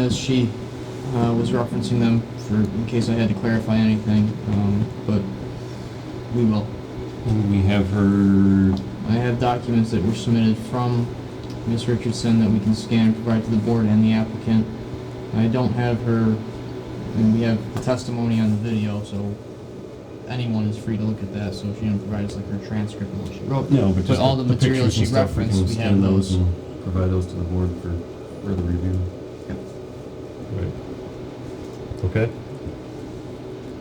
As she uh, was referencing them for in case I had to clarify anything, um, but we will. We have her, I have documents that were submitted from Ms. Richardson that we can scan and provide to the board and the applicant. I don't have her, and we have the testimony on the video, so anyone is free to look at that, so if she didn't provide us like her transcript of what she wrote. no, but But just all the materials pictures she and stuff, referenced, can we have scan those. and Provide those to the board for further review. Right. Okay.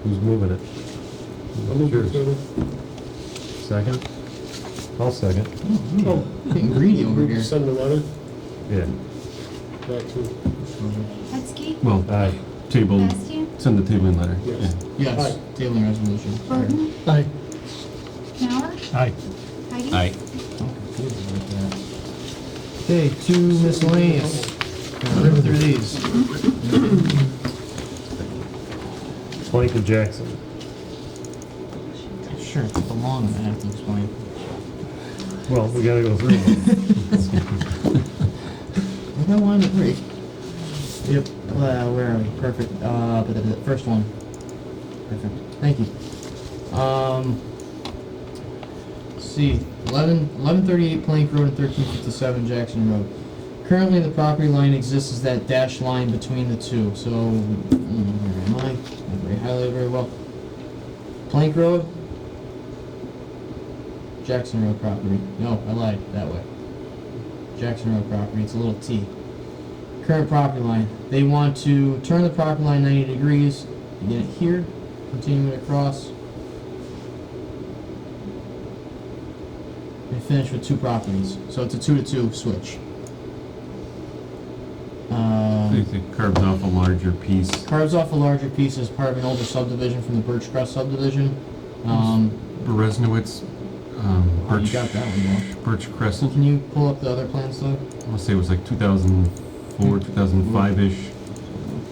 Who's moving it? Cheers. Second? I'll second. Oh, Getting greedy over we here. send the letter Yeah. back to, Hetzke, Well, Aye. table, Bastian, send the tabling letter. Yes. Yeah. Yes, Aye. tabling resolution. Sorry. Burton, aye, Mauer, Aye. Heidi. I'm confused about that. Okay, two miscellaneous. Gonna rip through these. Michael Jackson. Sure, it's the long one I have to explain. Well, we gotta go through them. I got one at three. Yep. Uh, where are we? Perfect. Uh, but the, the first one. Perfect. Thank you. Um. let's See, 11, 1138 Plank Road and 1357 Jackson Road. Currently, the property line exists as that dashed line between the two. So, mm, where am I? Not very highlighted very well. Plank Road, Jackson Road property. No, I lied. That way. Jackson Road property. It's a little T. Current property line. They want to turn the property line 90 degrees, begin it here, continue it across, and finish with two properties. So it's a two to two switch. I Um, think it carves off a larger piece. carves off a larger piece as part of an older subdivision from the Birchcrest subdivision. Um, Bereznowitz, um, oh, you got Birch, that one, Birch though. Crescent, Can you pull up the other plans, though? I wanna say it was like two thousand Mm-hmm. four, two thousand five-ish.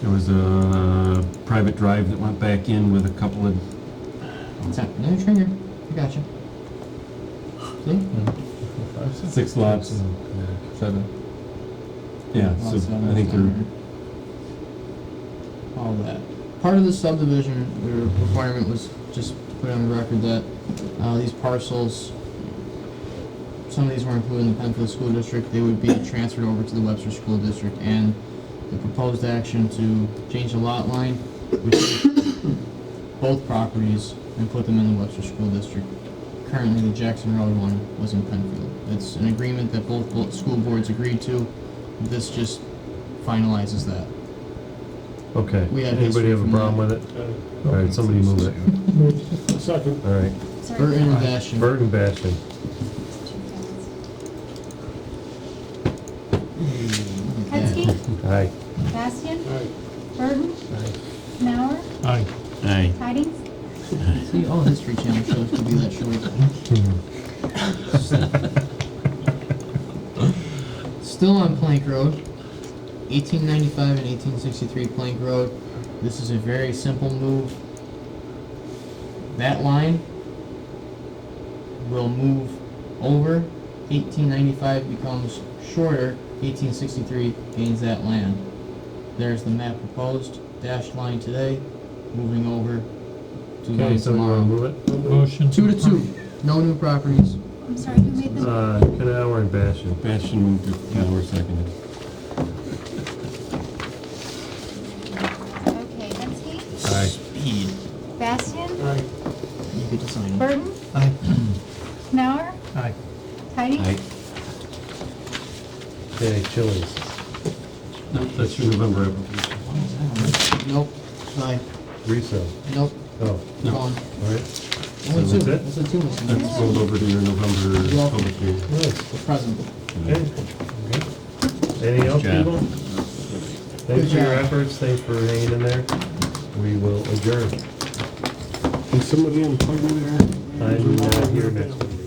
There was a private drive that went back in with a couple of It's not, no trigger. I got you. See? Six lots. Seven. Yeah, so Lots of I think them. they're, All that. Part of the subdivision the requirement was just to put on the record that uh, these parcels, some of these were included in the Penfield School District, they would be transferred over to the Webster School District, and the proposed action to change the lot line would take both properties and put them in the Webster School District. Currently, the Jackson Road one was in Penfield. It's an agreement that both, both school boards agreed to. This just finalizes that. Okay. We had Anybody history have a from problem that. with it? All right, somebody move it. Move. uh, second, All right. Sorry. Burton and Basham. Burton Bastion. Hetzke, Aye. Bastian, aye, Burton, Mauer, Aye. aye. Heidi. See, all History Channel shows could be that short. Still on Plank Road, 1895 and 1863 Plank Road. This is a very simple move. That line will move over. 1895 becomes shorter. 1863 gains that land. There's the map proposed. Dashed line today, moving over to Okay, line somebody wanna tomorrow. move it? Motion. Two to two. No new properties. I'm sorry, who made the, Uh, Canower and Bastion. Bastion moved it, now we're seconded. okay, Hetzke, Aye. Speed. Bastian, aye, You get to sign it. Burton, Aye. Mauer, Aye. Heidi. Okay, Chili's. That's your November application. Nope. Sign. Resale. Nope. Oh, No. Gone. all right. Only two. So that's That's a two. That's rolled over to your November Yeah. public hearing. Nice. The present. Okay. Anything else, Good job. people? Thanks for your job. efforts, thanks for hanging in there. We will adjourn. Can somebody unplug me there? I'm not here next week.